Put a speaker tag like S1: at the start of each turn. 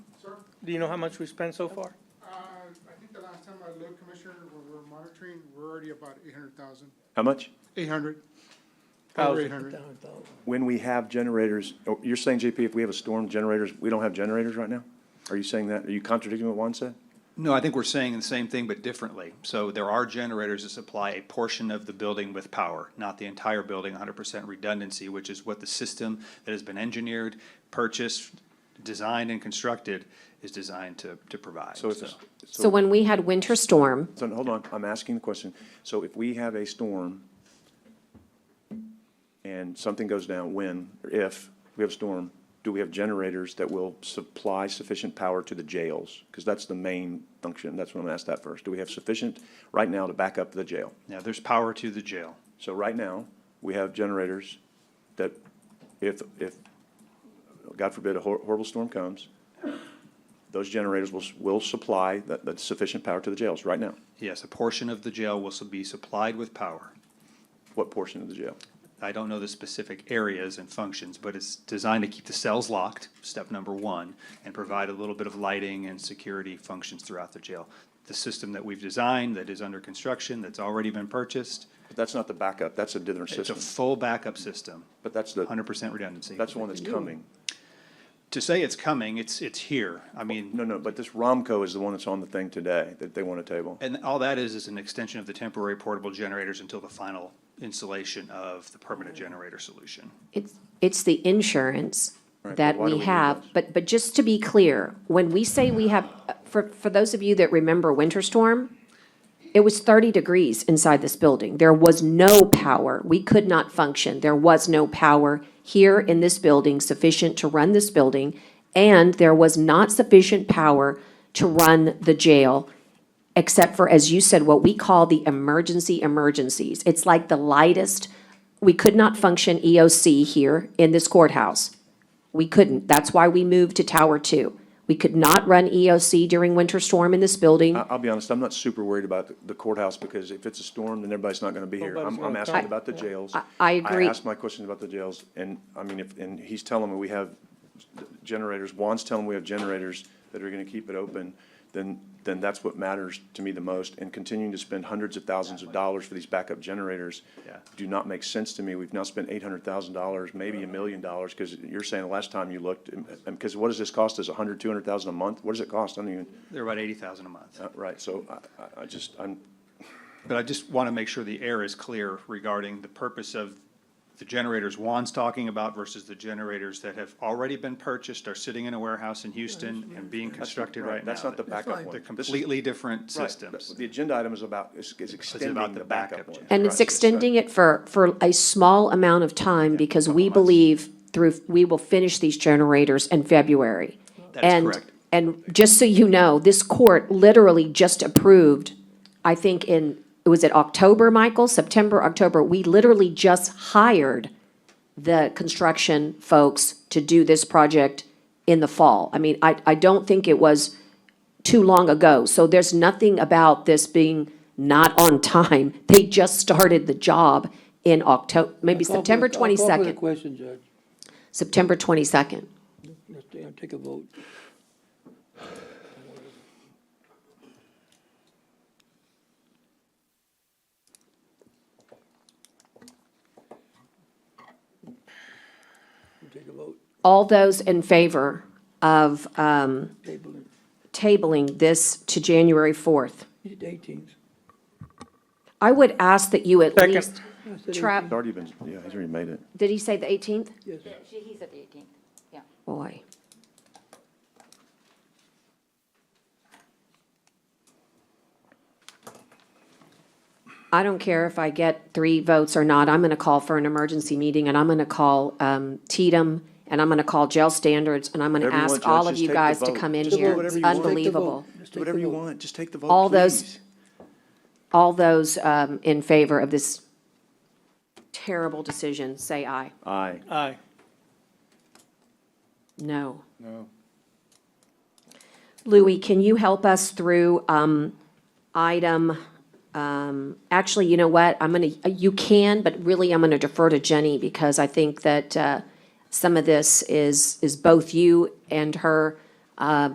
S1: Do you know how much we spent so far?
S2: Uh, I think the last time I looked, Commissioner, we're, we're monitoring, we're already about eight hundred thousand.
S3: How much?
S2: Eight hundred. Over
S1: Thousand.
S2: eight hundred.
S3: When we have generators, oh, you're saying, JP, if we have a storm, generators, we don't have generators right now? Are you saying that? Are you contradicting what Juan said?
S4: No, I think we're saying the same thing, but differently. So there are generators that supply a portion of the building with power, not the entire building, hundred percent redundancy, which is what the system that has been engineered, purchased, designed and constructed is designed to, to provide.
S3: So it's, a-
S5: So
S3: so,
S5: when we had winter storm,
S3: so hold on, I'm asking the question. So if we have a storm and something goes down, when, or if we have a storm, do we have generators that will supply sufficient power to the jails? Because that's the main function. That's what I'm gonna ask that first. Do we have sufficient right now to back up the jail?
S4: Now, there's power to the jail.
S3: So right now, we have generators that if, if, God forbid, a hor- horrible storm comes, those generators will, s- will supply that, that sufficient power to the jails right now.
S4: Yes, a portion of the jail will su- be supplied with power.
S3: What portion of the jail?
S4: I don't know the specific areas and functions, but it's designed to keep the cells locked, step number one, and provide a little bit of lighting and security functions throughout the jail. The system that we've designed, that is under construction, that's already been purchased,
S3: But that's not the backup, that's a different
S4: it's
S3: system.
S4: a full backup system,
S3: But that's the,
S4: hundred percent redundancy.
S3: that's the one that's coming.
S4: To say it's coming, it's, it's here. I mean,
S3: No, no, but this Romco is the one that's on the thing today, that they want to table.
S4: and all that is, is an extension of the temporary portable generators until the final installation of the
S3: Oh.
S4: permanent generator solution.
S5: it's, it's the insurance
S3: Right, but
S5: that
S3: why do we
S5: we
S3: do
S5: have.
S3: this?
S5: But, but just to be clear, when we say we have, for, for those of you that remember winter storm, it was thirty degrees inside this building. There was no power. We could not function. There was no power here in this building sufficient to run this building. And there was not sufficient power to run the jail except for, as you said, what we call the emergency emergencies. It's like the lightest, we could not function EOC here in this courthouse. We couldn't. That's why we moved to Tower Two. We could not run EOC during winter storm in this building.
S3: I- I'll be honest, I'm not super worried about the courthouse, because if it's a storm, then everybody's not gonna be here.
S1: Nobody's
S3: I'm, I'm
S1: gonna
S3: asking
S1: come.
S3: about the jails.
S5: I- I agree.
S3: I asked my questions about the jails, and, I mean, if, and he's telling me we have generators, Juan's telling me we have generators that are gonna keep it open, then, then that's what matters to me the most, and continuing to spend hundreds of thousands of dollars for these backup generators
S4: Yeah.
S3: do not make sense to me. We've now spent eight hundred thousand dollars, maybe a million dollars, because you're saying the last time you looked, because what does this cost us, a hundred, two hundred thousand a month? What does it cost? I don't even.
S4: They're about eighty thousand a month.
S3: Uh, Right, so I- I, I just, I'm,
S4: But I just want to make sure the air is clear regarding the purpose of the generators Juan's talking about versus the generators that have already been purchased, are sitting in a warehouse in Houston and being constructed right
S3: right,
S4: now.
S3: that's not the backup one.
S4: They're
S3: This is-
S4: completely different
S3: right,
S4: systems.
S3: The agenda item is about, is is extending
S4: about
S3: the
S4: the
S3: backup
S4: backup
S3: one.
S5: And it's extending it for, for a small amount of time because we believe through, we will finish these generators in February.
S4: That is
S5: And-
S4: correct.
S5: And just so you know, this court literally just approved, I think in, was it October, Michael? September, October, we literally just hired the construction folks to do this project in the fall. I mean, I, I don't think it was too long ago. So there's nothing about this being not on time. They just started the job in October, maybe September
S6: Call for the- I'll Call for the
S5: twenty-second,
S6: question, Judge.
S5: September twenty-second.
S6: Let's ta- take a vote. Take a vote,
S5: All those in favor of, um,
S6: table it.
S5: tabling this to January 4th.
S6: It's eighteenth.
S5: I would ask that you at
S1: Second.
S5: least,
S3: It's
S5: Trav,
S3: already been, yeah, he's already made it.
S5: did he say the 18th?
S6: Yes,
S7: She, he's at the eighteenth, yeah.
S5: Boy. I don't care if I get three votes or not, I'm going to call for an emergency meeting, and I'm going to call um, Tatum, and I'm going to call jail standards, and I'm going to
S3: Whatever you
S5: ask
S3: want,
S5: all
S3: Judge,
S5: of
S3: just
S5: you
S3: take the
S5: guys to
S3: vote.
S5: come in
S3: Just do
S5: here.
S3: whatever
S5: It's
S3: you want. Take the
S5: unbelievable.
S3: Do whatever you want, just take the vote,
S5: All those-
S3: please.
S5: All those um, in favor of this terrible decision, say aye.
S3: Aye.
S1: Aye.
S5: No.
S2: No.
S5: Louis, can you help us through um, item, um, actually, you know what? I'm going to, you can, but really, I'm going to defer to Jenny because I think that uh, some of this is, is both you and her